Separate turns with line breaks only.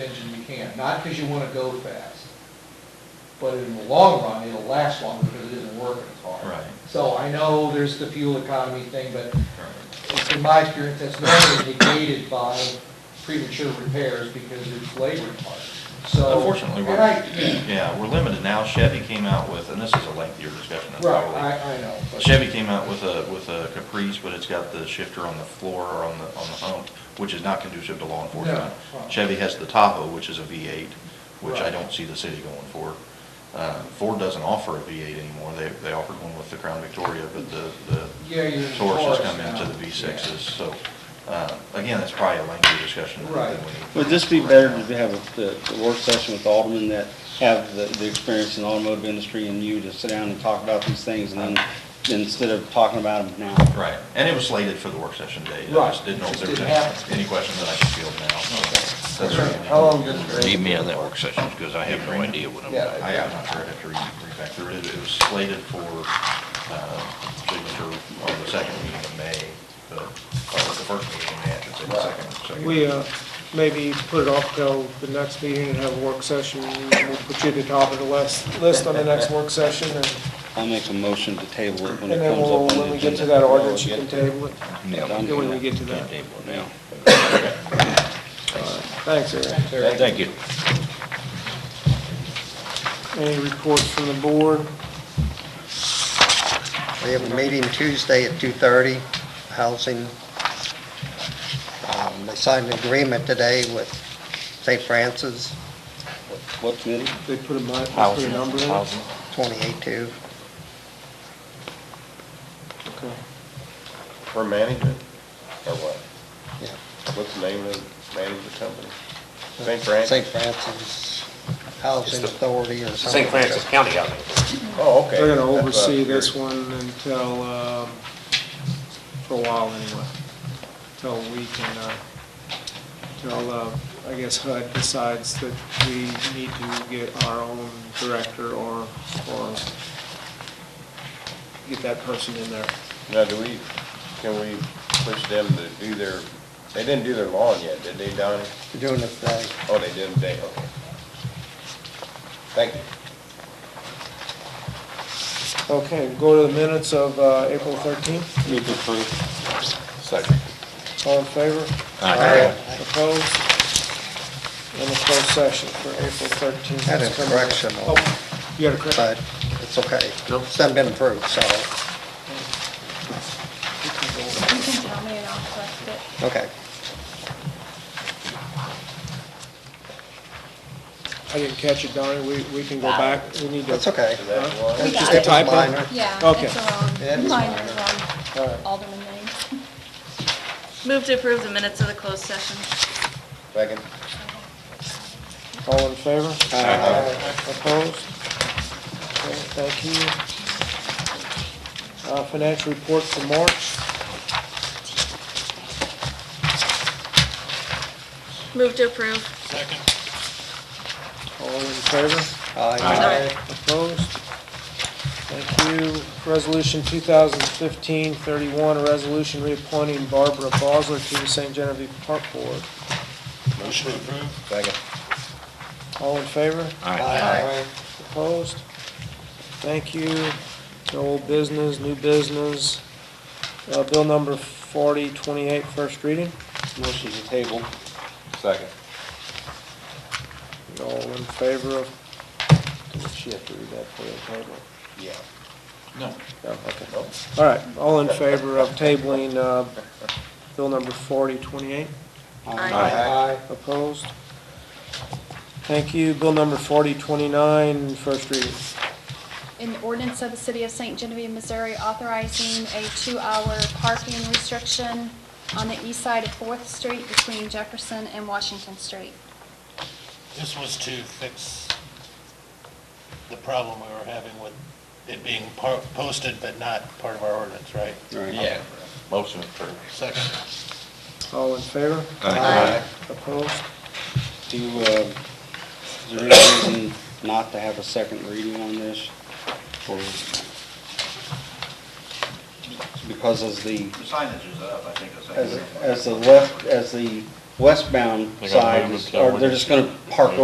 engine you can, not because you want to go fast, but in the long run, it'll last longer because it isn't working as hard.
Right.
So I know there's the fuel economy thing, but in my experience, that's normally negated by premature repairs because it's labor parts. So.
Unfortunately, we're,
And I,
yeah, we're limited now. Chevy came out with, and this is a lengthier discussion, that's
right,
probably.
I, I know. but-
Chevy came out with a, with a Caprice, but it's got the shifter on the floor or on the, on the hump, which is not conducive to law enforcement.
No, right.
Chevy has the Tahoe, which is a V8, which I
Right.
don't see the city going for. Uh, Ford doesn't offer a V8 anymore. They, they offered one with the Crown Victoria, but the, the
Yeah, you're. in
Taurus has
Taurus
come into
now.
the V6s.
Yeah.
So, uh, again, that's probably a lengthier discussion than
Right.
than we need.
Would this be better to have a- the the work session with Alderman that have the, the experience in the automotive industry and you to sit down and talk about these things and then, instead of talking about them now?
Right, and it was slated for the work session date. I
Right.
just didn't know if there
It
was
just
any-
didn't
any question that I should field now. so that's
Okay.
really-
How long does it take?
Leave me out of that work session, because I have no idea what I'm
Yeah.
doing.
I, I'm not sure, I have to read, read back through it. It was slated for, uh, signature on the second meeting of May, but, or the first meeting in May, I should say, the second, second.
We, uh, maybe put it off till the next meeting and have a work session, and we'll put you at the top of the list, list on the next work session, and
I'll make a motion to table it when
and
it
then
comes
we'll,
up on
when
the
we get to
agenda.
that ordinance, you can table it.
Done.
Then when we get to that.
Yeah.
Thanks, Eric.
Thanks, Eric.
Thank you.
Any reports from the board?
We have a meeting Tuesday at 2:30, housing. Um, They signed an agreement today with St. Francis,
What committee?
They put a mi, they put a number in? it?
28-2.
Okay.
For management, or what?
Yeah.
What's the name of the management company? St. Francis?
St. Francis Housing Authority or something.
St. Francis County Housing.
Oh, okay.
They're gonna
That's what I was
oversee this
curious.
one until, um, for a while anyway, until we can, uh, until, uh, I guess HUD decides that we need to get our own director or, or get that person in there.
Now, do we, can we push them to do their, they didn't do their lawn yet, did they, Donnie?
We're Doing it uh, today.
Oh, they didn't, they, okay. Thank you.
Okay, go to the minutes of, uh, April thirteenth,
Move to approve.
Second.
all in favor?
Aye.
Opposed? And the closed session for April thirteenth.
Had a correction on it,
Oh, You got a correction?
but it's okay. It's not been approved, so,
You can tell me and I'll correct it.
okay.
I didn't catch it, Donnie, we, we can go back, we need to.
That's okay.
Is that
Huh?
one?
We
It's
got
just-
it.
It was
Typo?
minor.
Yeah,
Okay.
it's
Yeah,
a
it's
wrong,
minor.
mine is wrong,
All right.
Alderman names.
Move to approve the minutes of the closed session.
Second?
All in favor?
Aye.
Opposed? Okay, thank you. Uh, financial report for March,
Move to approve.
all in favor?
Aye.
Opposed? Thank you. Resolution 2015-31, a resolution reappointing Barbara Bosler to the St. Genevieve Park Board.
Motion approved. Second.
All in favor?
Aye.
Opposed? Thank you. No old business, new business. Uh, Bill number 4028, first reading.
Motion to table.
Second.
All in favor of, does she have to read that for the table?
Yeah.
No.
No, okay.
Nope.
All right, all in favor of tabling uh, bill number 4028?
Aye.
Opposed? Thank you. Bill number 4029, first reading.
An ordinance of the City of St. Genevieve, Missouri authorizing a two-hour parking restriction on the east side of Fourth Street between Jefferson and Washington Street.
This was to fix the problem we were having with it being par- posted but not part of our ordinance, right?
Yeah, motion approved.
Second.
All in favor?
Aye.
Opposed?
Do, you, uh, is there any reason not to have a second reading on this? Or- Because as the
The signage is up, I think, a second.
As, as the left, as the westbound
They're gonna move
side,
it
is-
to
or they're just gonna park